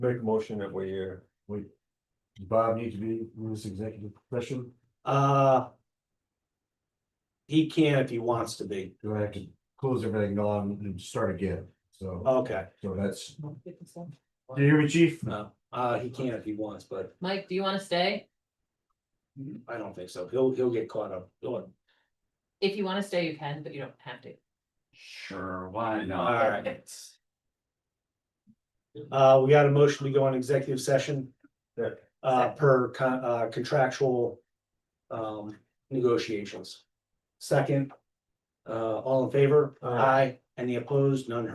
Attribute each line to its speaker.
Speaker 1: Make a motion that we, uh,
Speaker 2: Wait. Does Bob need to be in this executive session?
Speaker 3: Uh. He can if he wants to be,
Speaker 2: Do I have to close everything on and start again? So,
Speaker 3: okay,
Speaker 2: so that's, do
Speaker 4: Mike,
Speaker 2: you hear me, chief?
Speaker 3: no, uh, he can if he wants, but
Speaker 4: do you wanna stay?
Speaker 3: I don't think so, he'll, he'll get caught up. All
Speaker 4: If you wanna stay, you can, but you don't have to.
Speaker 5: Sure, why not?
Speaker 3: right. Uh, we got a motion to go on executive session.
Speaker 1: Yeah.
Speaker 3: Uh, per con- uh, contractual. Um, negotiations. Second. Uh, all in favor?
Speaker 1: Aye.
Speaker 3: Aye. Any opposed? None